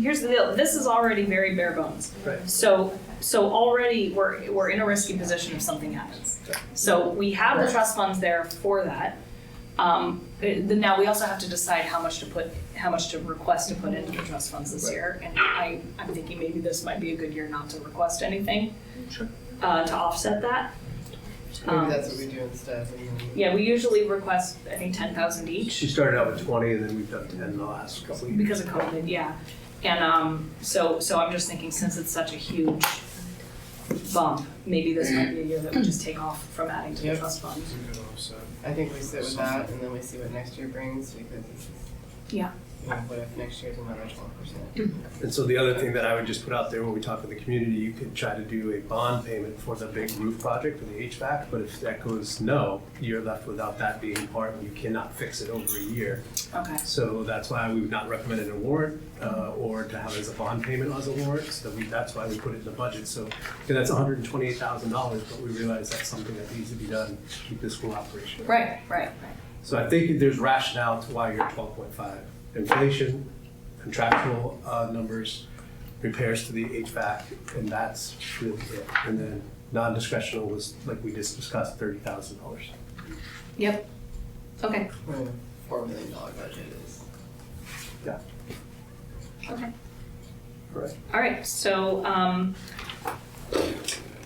Here's the deal, this is already very bare bones. Right. So, so already we're, we're in a risky position if something happens. So we have the trust funds there for that. Um, it- then now we also have to decide how much to put, how much to request to put into the trust funds this Right. year. And I, I'm thinking maybe this might be a good year not to request anything. Sure. Uh, to offset that. Um, Maybe that's what we do instead. Yeah, we usually request, I think, ten thousand each. She started out with twenty, and then we've done ten in the last couple of years. because of COVID, yeah. And um, so, so I'm just thinking, since it's such a huge bump, maybe this might be a year that we just take off from adding to the Yep. trust fund. I think we sit with that and then we see what next year brings because this is. Yeah. Mm. You know, what if next year's another twelve percent? And so the other thing that I would just put out there when we talk to the community, you could try to do a bond payment for the big roof project for the HVAC, but if that goes no, you're left without that being part, and you cannot fix it over a year. Okay, So that's why we would not recommend an award, uh, or to have it as a bond payment as a warrant, so we, that's why we put it in the budget, so. And that's hundred and twenty-eight thousand dollars, but we realize that's something that needs to be done to keep this school operational. right, right, So I think there's rationale to why you're twelve point five. Inflation, contractual uh, numbers, repairs to the HVAC, and that's really it. And then non-discretional was, like we just discussed, thirty thousand dollars. yep, okay. Four million dollar budget is. Right. All right, so um,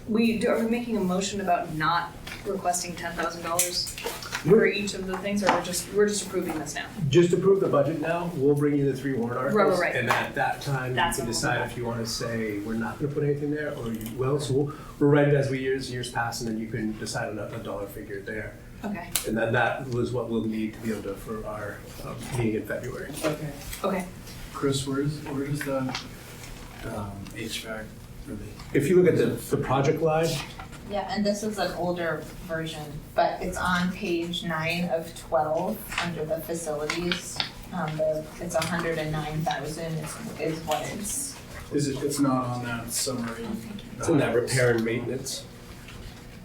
we, do- are we making a motion about not requesting ten thousand dollars for each of the things, or we're just, we're just approving this now? Just approve the budget now, we'll bring you the three warrant articles. Right, right, right. And at that time, you That's can when we'll decide do if you wanna say, we're not gonna put anything there, or you will. So we'll, we'll write it as we, years, years pass, and then you can decide on a a dollar figure there. Okay, And then that was what we'll need to be able to, for our uh, meeting in February. Okay. okay, Chris, where is, where is the um, HVAC for the, If you look at the, the project line, Yeah, and this is an older version, but it's on page nine of twelve, under the facilities. Um, the, it's a hundred and nine thousand is, is what it's, is it, it's not on that summary? it's in Uh-huh. that repair and maintenance.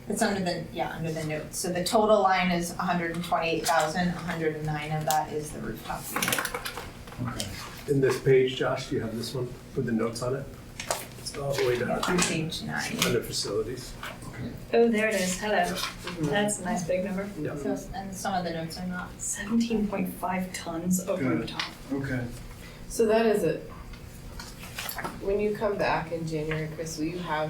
it's under the, yeah, under the notes. So the total line is hundred and twenty-eight thousand, hundred and nine of that is the rooftop unit. Okay. In this page, Josh, do you have this one with the notes on it? It's all the way down On page nine. under facilities. oh, there it is, hello, that's a nice big number. So, it's- and some of the notes are not. Seventeen point five tons of Got it. rooftop. Okay, So that is it. When you come back in January, Chris, will you have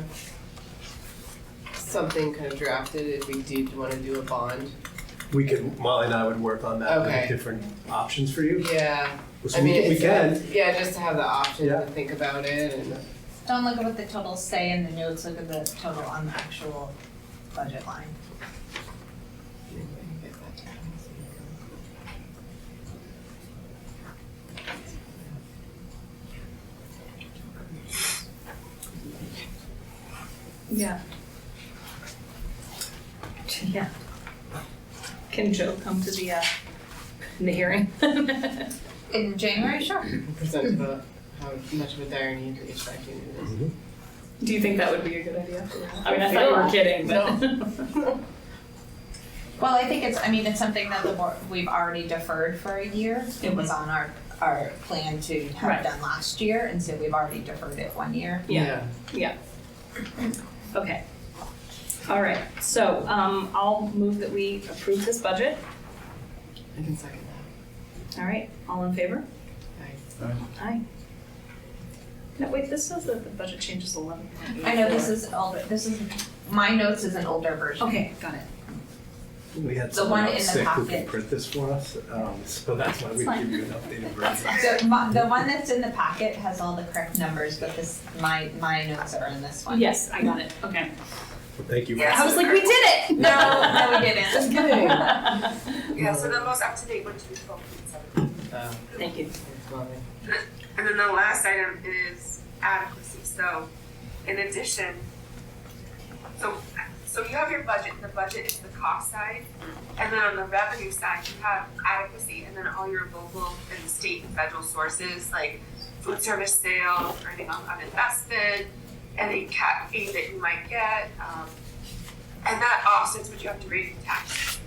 something kind of drafted if we did wanna do a bond? We could, Molly and I would work on that, with Okay. different options for you. Yeah, So I we mean, can, we it's, can, yeah, just to have the option Yeah. to think about it and. Don't look at what the totals say in the notes, look at the total on the actual budget line. Yeah. Yeah. Can Joe come to the, uh, the hearing? In January, sure. Present about uh, how much of a dire need the HVAC unit is. Do you think that would be a good idea? I mean, I thought you were kidding, but. Well, I think it's, I mean, it's something that the board, we've already deferred for a year. It was Mm-hmm. on our, our plan to Right. have done last year, and so we've already deferred it one year. Yeah, okay. All right, so, um, I'll move that we approve this budget. I can second that. All right, all in favor? Aye. Aye. No, wait, this says that the budget changes eleven point Mm-hmm. eight. I know this is older, this is, my notes is an older version. Okay, got it. we had The someone one out in the sick who can packet. print this for us, um, so that's why we That's give you an updated That's version. fine. So my, the one that's in the packet has all the correct numbers, but this, my, my notes are in this one. Yes, I got it, okay. Well, Thank you. Yeah. I was like, we did it! No, no, we didn't. Just kidding. Yeah, so the most up to date one should be twelve point seven. Uh, Thank you. it's lovely. And then the last item is adequacy, so in addition, so, so you have your budget, the budget is the cost side. And then on the revenue side, you have adequacy and then all your local and state and federal sources, like food service sales, earning on uninvested, any cap fee that you might get, um, and that offsets what you have to raise in taxes.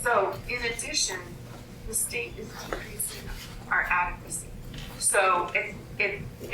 So in addition, the state is decreasing our adequacy. So if, it